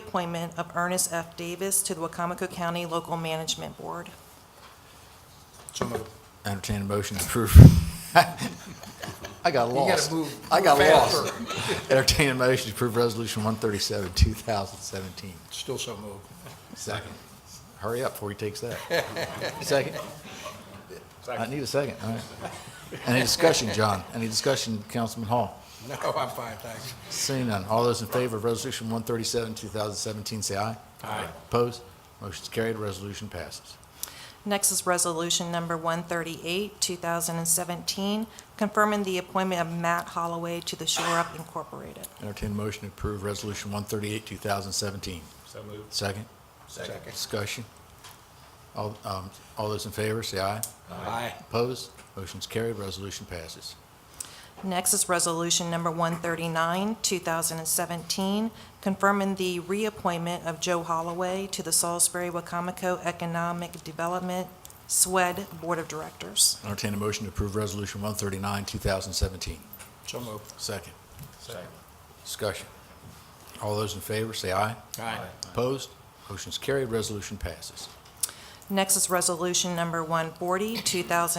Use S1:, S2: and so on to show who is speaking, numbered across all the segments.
S1: reappointment of Ernest F. Davis to the Wacomico County Local Management Board.
S2: So moved.
S3: Entertain a motion to approve. I got
S2: You
S3: lost.
S2: gotta move.
S3: I got
S2: move faster.
S3: lost. Entertain a motion to approve Resolution 137, 2017.
S2: Still so moved.
S3: Second. Hurry up before he takes that. Second? I need a second, all right. Any discussion, John? Any discussion, Councilman Hall?
S2: No, I'm fine, thanks.
S3: Seeing none, all those in favor of Resolution 137, 2017, say aye.
S2: Aye.
S3: Opposed? Motion's carried, resolution passes.
S1: Next is Resolution Number 138, 2017, confirming the appointment of Matt Holloway to the Shore Up Incorporated.
S3: Entertain a motion to approve Resolution 138, 2017.
S2: So moved.
S3: Second?
S2: Second.
S3: Discussion. All, um, all those in favor, say aye.
S2: Aye.
S3: Opposed? Motion's carried, resolution passes.
S1: Next is Resolution Number 139, 2017, confirming the reappointment of Joe Holloway to the Salisbury-Wacomico Economic Development SWED Board of Directors.
S3: Entertain a motion to approve Resolution 139, 2017.
S2: So moved.
S3: Second.
S2: Second.
S3: Discussion. All those in favor, say aye.
S2: Aye.
S3: Opposed? Motion's carried, resolution passes.
S1: Next is Resolution Number 140,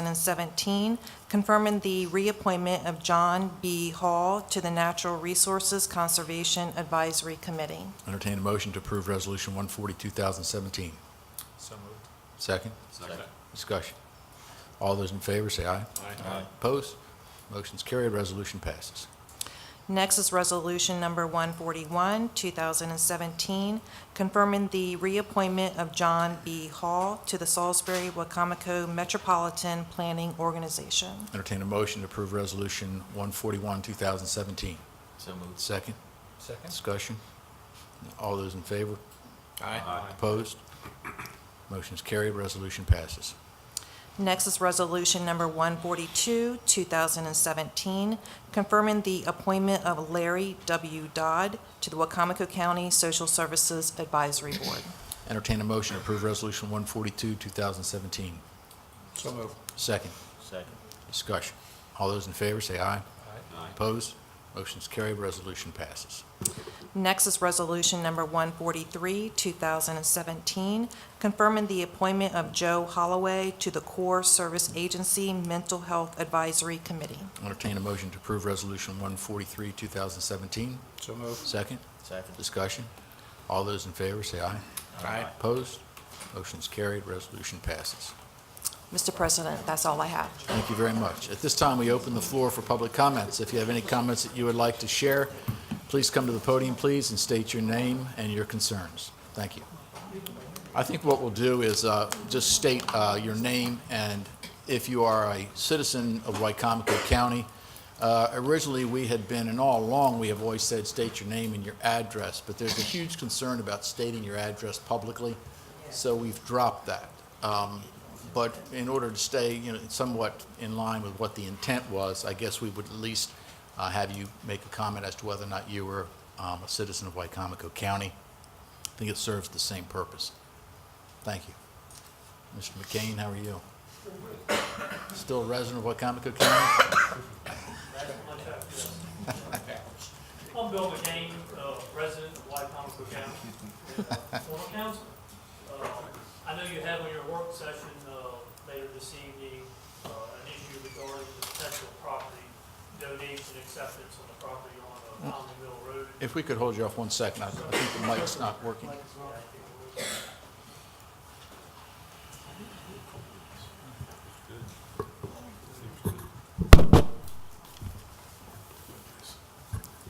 S1: 2017, confirming the reappointment of John B. Hall to the Natural Resources Conservation Advisory Committee.
S3: Entertain a motion to approve Resolution 140, 2017.
S2: So moved.
S3: Second.
S2: Second.
S3: Discussion. All those in favor, say aye.
S2: Aye.
S3: Opposed? Motion's carried, resolution passes.
S1: Next is Resolution Number 141, 2017, confirming the reappointment of John B. Hall to the Salisbury-Wacomico Metropolitan Planning Organization.
S3: Entertain a motion to approve Resolution 141, 2017.
S4: So moved.
S3: Second.
S2: Second.
S3: Discussion. All those in favor?
S2: Aye.
S3: Opposed? Motion's carried, resolution passes.
S1: Next is Resolution Number 142, 2017, confirming the appointment of Larry W. Dodd to the Wacomico County Social Services Advisory Board.
S3: Entertain a motion to approve Resolution 142, 2017.
S2: So moved.
S3: Second.
S4: Second.
S3: Discussion. All those in favor, say aye.
S4: Aye.
S3: Opposed? Motion's carried, resolution passes.
S1: Next is Resolution Number 143, 2017, confirming the appointment of Joe Holloway to the Core Service Agency Mental Health Advisory Committee.
S3: Entertain a motion to approve Resolution 143, 2017.
S2: So moved.
S3: Second.
S4: Second.
S3: Discussion. All those in favor, say aye.
S2: Aye.
S3: Opposed? Motion's carried, resolution passes.
S1: Mr. President, that's all I have.
S3: Thank you very much. At this time, we open the floor for public comments. If you have any comments that you would like to share, please come to the podium, please, and state your name and your concerns. Thank you. I think what we'll do is uh, just state uh, your name, and if you are a citizen of Wycomico County, uh, originally, we had been, and all along, we have always said, state your name and your address, but there's a huge concern about stating your address publicly, so we've dropped that. Um, But in order to stay, you know, somewhat in line with what the intent was, I guess we would at least uh, have you make a comment as to whether or not you were um, a citizen of Wycomico County. I think it serves the same purpose. Thank you. Mr. McCain, how are you? Still a resident of Wycomico County?
S5: I'm Bill McCain, uh, resident of White Comico County, uh, former council. Uh, I know you have on your work session uh, later this evening uh, an issue regarding the potential property donation acceptance on the property on uh, Conley Mill Road.
S3: If we could hold you off one second, I I think the mic's not working.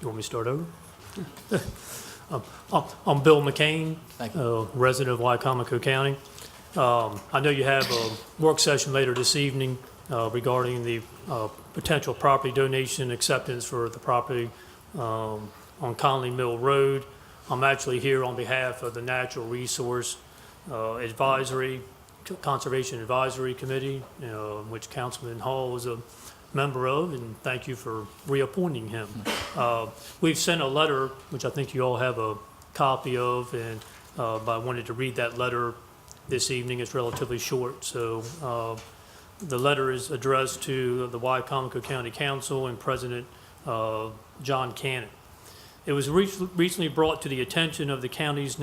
S5: You want me to start over? Um, I'm- I'm Bill McCain,
S3: Thank you.
S5: uh, resident of Wycomico County. Um, I know you have a work session later this evening uh, regarding the uh, potential property donation acceptance for the property um, on Conley Mill Road. I'm actually here on behalf of the Natural Resource uh, Advisory, Conservation Advisory Committee, uh, which Councilman Hall is a member of, and thank you for reappointing him. Uh, We've sent a letter, which I think you all have a copy of, and uh, but I wanted to read that letter this evening. It's relatively short, so uh, the letter is addressed to the Wycomico County Council and President uh, John Cannon. It was re- recently brought to the attention of the county's